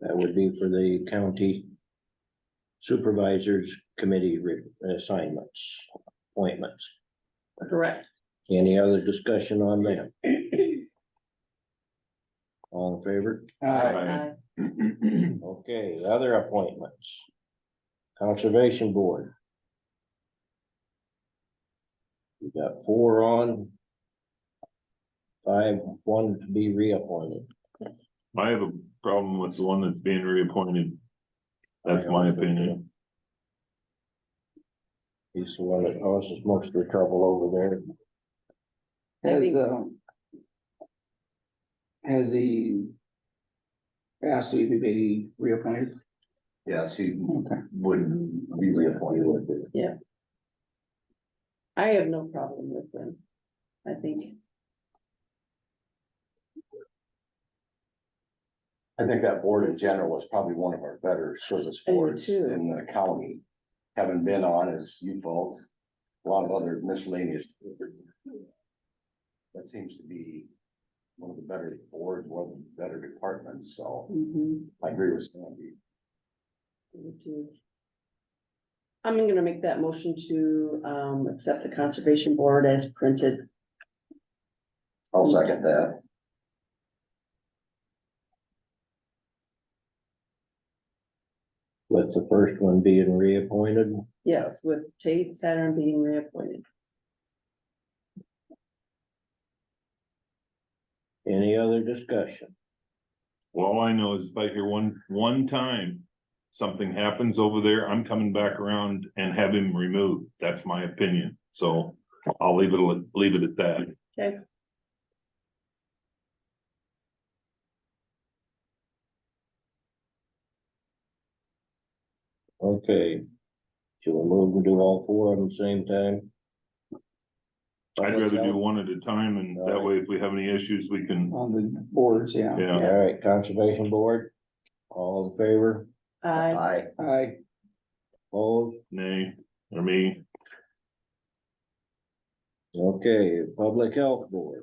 That would be for the county supervisors committee re- assignments, appointments. Correct. Any other discussion on that? All in favor? Aye. Okay, other appointments. Conservation Board. We got four on. Five, one to be reappointed. I have a problem with the one that's being reappointed. That's my opinion. He's the one that causes most of the trouble over there. I Has, think- um. Has he? Asked to be reappointed? Yes, he Okay. would be reappointed with it. I have no problem with them. I think, I think that board in general was probably one of our better service I do boards too. in the county. Having been on as you folks, a lot of other miscellaneous. That seems to be one of the better boards, one of the better departments, so mhm, I agree with Sandy. we do. I'm gonna make that motion to, um, accept the conservation board as printed. I'll second that. With the first one being reappointed, Yes, with Tate Saturn being reappointed. any other discussion? Well, All I know is if I hear one, one time something happens over there, I'm coming back around and have him removed. That's my opinion. So I'll leave it, leave it at that. Okay. Should we move and do all four of them same time? I'd rather do one at a time and that way if we have any issues, we can, On the boards, yeah. yeah. All right, Conservation Board, all in favor, I, Aye. I, opposed? Nay, or me, Okay, Public Health Board.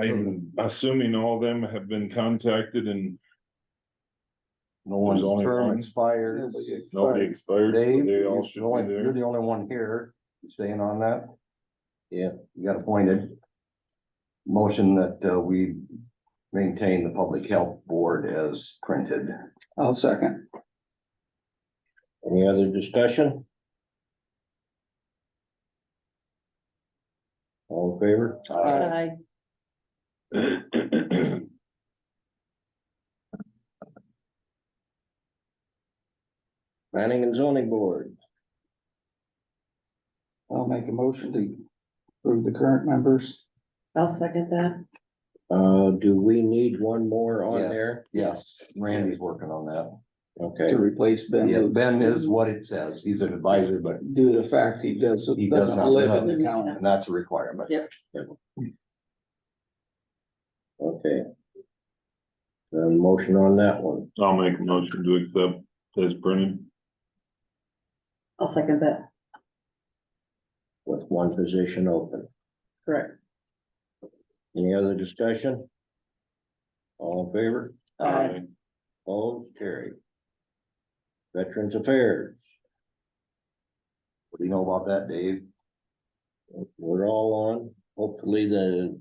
I'm assuming all of them have been contacted and No one's only one. expires. nobody expired. so Dave, They all you're should the only- be you're there. the only one here staying on that. Yeah. You got appointed. Motion that uh, we maintain the public health board as printed. I'll second. Any other discussion? All in favor? Uh, I, Planning and Zoning Board, I'll make a motion to approve the current members. I'll second that. uh, do we need one more on yes, there? Yes, Randy's working on that. Okay, To replace Ben. Yeah, Lutz. Ben is what it says. He's an advisor, but Due to the fact he does, He does doesn't not live live in in the county. and that's a requirement. Yep. okay. Then motion on that one, I'll make a motion to accept as printed. I'll second that, with one position open. correct. Any other discussion? All in favor? Aye. All carried. Veterans Affairs, What do you know about that, Dave? we're all on, hopefully the.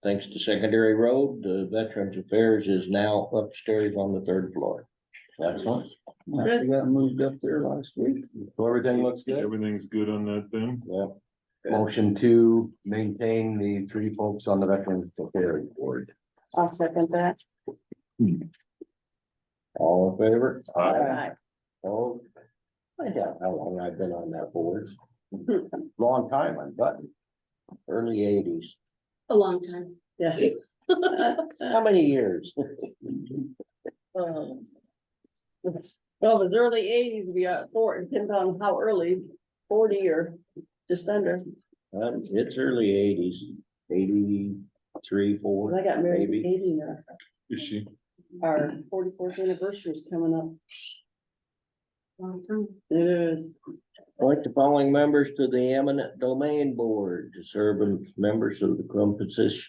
Thanks to Secondary Road, the Veterans Affairs is now upstairs on the third floor. Excellent. I got moved up there last week. So everything looks good. Everything's good on that then? Yep. Motion to maintain the three folks on the Veterans Affairs Board. I'll second that. All in favor? Aye. Oh. I doubt how long I've been on that board, Long time, I'm done. early eighties, A long time. Yeah. how many years? Um, Well, it was early eighties, we got four, it depends on how early, forty or just under, Um, it's early eighties, eighty-three, When four, I got married in Maybe. eighty, and our- Is she? our forty-fourth anniversary is coming up. It is, appoint the following members to the eminent domain board to serve as members of the composition.